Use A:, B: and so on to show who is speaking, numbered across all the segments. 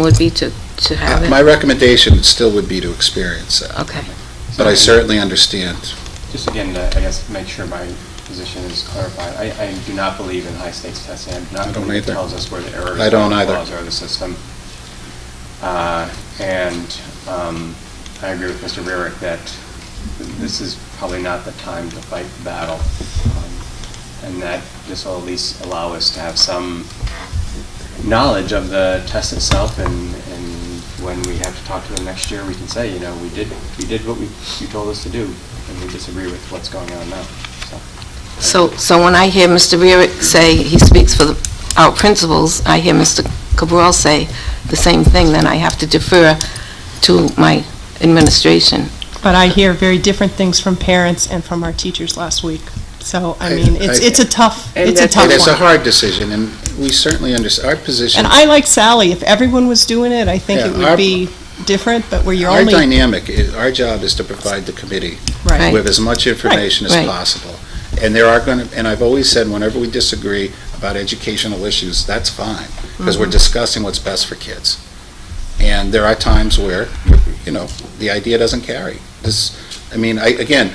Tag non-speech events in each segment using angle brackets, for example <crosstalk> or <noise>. A: would be to, to have
B: My
A: it?
B: recommendation still would be to experience that,
A: Okay,
B: but I certainly understand.
C: Just again, to, I guess, make sure my position is clarified. I, I do not believe in high-stakes testing. I do
B: I
C: not
B: don't
C: believe it
B: either.
C: tells us where the errors.
B: I don't
C: are,
B: either.
C: Flaws are of the system. Uh, And um, I agree with Mr. Rarick that this is probably not the time to fight the battle. Um, And that this will at least allow us to have some knowledge of the test itself and, and when we have to talk to them next year, we can say, you know, we did, we did what we, you told us to do, and we disagree with what's going on now, so.
A: so, so when I hear Mr. Burek say he speaks for the- our principals, I hear Mr. Cabral say the same thing, then I have to defer to my administration.
D: But I hear very different things from parents and from our teachers last week. So, I mean, it's, it's a tough, it's a
B: It
D: tough
B: is a
D: one.
B: hard decision, and we certainly under, our position,
D: And I like Sally, if everyone was doing it, I think
B: Yeah,
D: it
B: our-
D: would be different, but where you're
B: our
D: only, right,
B: dynamic, i- our job is to provide the committee
A: Right.
B: with as much information as
A: right.
B: possible. And there are going to, and I've always said, whenever we disagree about educational issues, that's fine, because
D: Mm-hmm.
B: we're discussing what's best for kids. And there are times where, you know, the idea doesn't carry. This, I mean, I, again,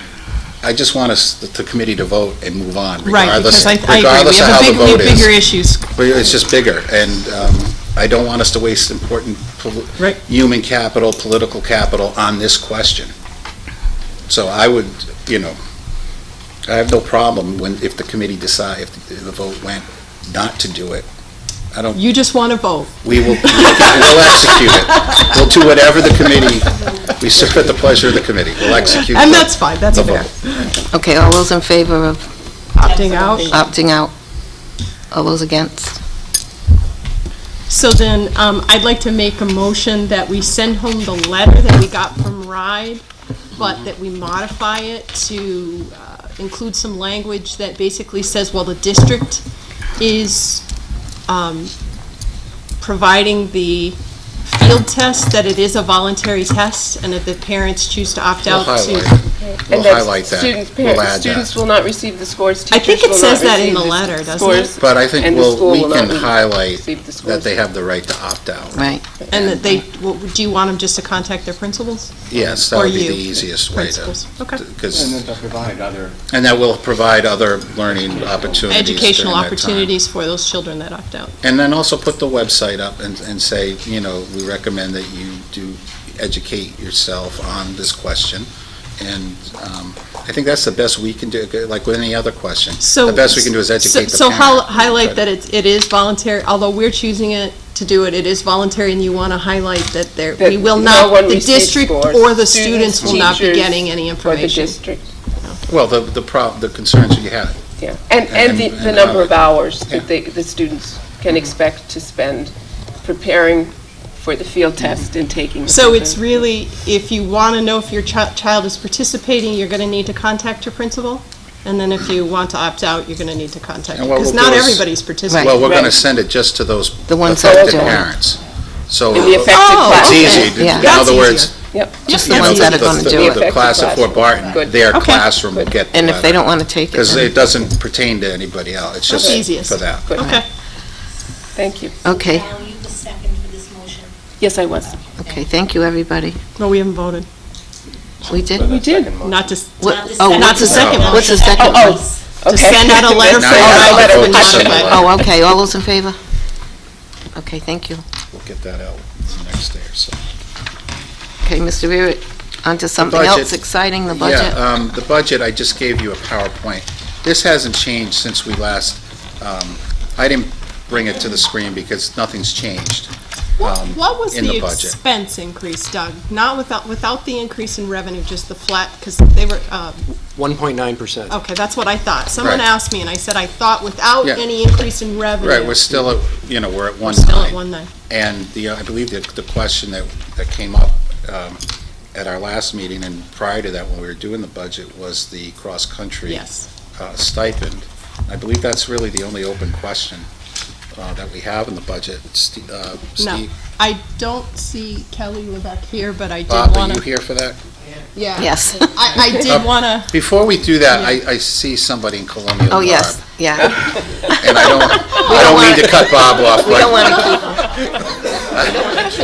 B: I just want us, the- the committee to vote and move on,
D: Right,
B: regardless,
D: because I, I agree, we
B: regardless of how
D: have a
B: the
D: big, we have
B: vote is.
D: bigger issues.
B: But it's just bigger, and um, I don't want us to waste important poli-
D: Right.
B: human capital, political capital on this question. So I would, you know, I have no problem when, if the committee decide, if the vote went not to do it. I don't,
D: You just want to vote.
B: we will, we'll execute it. We'll do whatever the committee, we serve at the pleasure of the committee. We'll execute.
D: And
B: the-
D: that's fine, that's
B: the
D: fair.
B: vote.
A: Okay, all those in favor of
D: Opting out.
A: opting out? All those against?
D: So then, um, I'd like to make a motion that we send home the letter that we got from RIDE, but that we modify it to uh, include some language that basically says, well, the district is, um, providing the field test, that it is a voluntary test, and if the parents choose to opt
B: We'll
D: out to.
B: highlight, we'll
E: And that's
B: highlight
E: Students,
B: that. We'll
E: parents,
B: add
E: students
B: that.
E: will not receive the scores,
D: I
E: teachers
D: think it
E: will
D: says
E: not
D: that in
E: receive
D: the
E: the
D: letter,
E: s-
D: doesn't
E: scores,
B: But I think
E: and the
B: we'll,
E: school
B: we
E: will
B: can
E: not re-
B: highlight
E: receive the
B: that
E: scores.
B: they have the right to opt out.
A: Right,
D: And that they, well, do you want them just to contact their principals?
B: Yes, that
D: Or
B: would be the
D: you,
B: easiest way to,
D: principals. Okay.
C: And then
B: because,
C: to provide other
B: and that will provide other learning opportunities during that time.
D: Educational opportunities for those children that opt out.
B: And then also put the website up and, and say, you know, we recommend that you do educate yourself on this question. And um, I think that's the best we can do, like with any other question.
D: So.
B: The best we can do is educate the
D: So so hol-
B: parent.
D: highlight that it, it is voluntary, although we're choosing it to do it, it is voluntary, and you want to highlight that there,
E: That
D: we will
E: no
D: not,
E: one
D: the
E: receives
D: district
E: scores.
D: or the
E: Students,
D: students will not be
E: teachers,
D: getting any
E: For the
D: information.
E: district,
B: Well, the, the prob, the concerns you had.
E: yeah. And,
B: And-
E: and the,
B: and
E: the number of
B: how-
E: hours
B: yeah. Mm-hmm.
E: that they, the students can expect to spend preparing for the field
B: Mm-hmm.
E: test and taking. the
D: So
E: field
D: it's
E: test.
D: really, if you want to know if your chi- child is participating, you're going to need to contact your principal, and then if you want to opt out, you're going to need to contact,
B: And what
D: because
B: we'll
D: not
B: do is-
D: everybody's participating.
B: Well, we're going to
E: Right.
B: send it just to those
A: The ones that
B: affected
E: don't.
B: parents. So
E: In the
B: it's
E: affected
D: Oh,
E: class.
D: okay.
B: easy.
A: Yeah.
B: In
D: That's
B: other
D: easier.
B: words,
E: Yep.
D: Just
B: you
A: the
B: know,
A: ones that are
B: the-
A: gonna
B: the-
A: do it.
B: The class of Fort Barton,
E: Good.
B: their
D: Okay.
B: classroom will get the
A: and if they don't want to take it,
B: Because
A: then-
B: it doesn't pertain to anybody else, it's
D: That's
B: just
D: easiest.
B: for that.
E: Good.
D: Okay.
E: Thank you.
A: okay,
F: Al, you the second for this motion.
E: Yes, I was.
A: okay, thank you, everybody.
D: No, we haven't voted.
A: We
C: for
A: did?
C: that
E: did.
C: second motion.
D: Not just,
A: What-
F: the
A: oh,
F: second
A: what's the
F: one.
D: second one?
A: What's the second
E: Oh,
A: one?
E: oh.
D: to
E: Okay.
D: send out a letter
B: Now
D: from
B: you have
E: Oh,
B: to
D: RIDE
B: vote
D: to
B: to send
D: modify.
B: a letter.
A: Oh, okay, all those in favor? Okay, thank you.
B: We'll get that out next day or so.
A: Okay, Mr. Rurick, on to something
B: budget.
A: else exciting, the budget.
B: Yeah, um, the budget, I just gave you a PowerPoint. This hasn't changed since we last, um, I didn't bring it to the screen because nothing's changed.
D: What
B: um,
D: what was
B: in
D: the
B: the budget.
D: expense increase, Doug? Not without, without the increase in revenue, just the flat, because they were, uh,
G: 1.9%.
D: okay, that's what I thought. Someone
B: Right.
D: asked me, and I said I thought without
B: Yeah.
D: any increase in revenue.
B: Right, we're still, at you know, we're at
D: Oh, we're
B: one
D: still at
B: nine.
D: one nine.
B: And the, uh, I believe that the question that, that came up um, at our last meeting and prior to that, when we were doing the budget, was the cross-country
D: yes.
B: uh, stipend. I believe that's really the only open question uh, that we have in the budget. Ste- uh, Steve,
D: I don't see Kelly Levesque here, but I did
B: Bob, are
D: want
B: you
D: to,
B: here for that?
D: yeah.
A: Yes.
D: I, I did
B: Uh,
D: want to,
B: Before we do that, I, I see somebody in Columbia
A: Oh,
B: Barb, <laughs>
A: yes, yeah.
B: And I don't, I don't mean to cut Bob off,
A: We don't
B: but
A: want to keep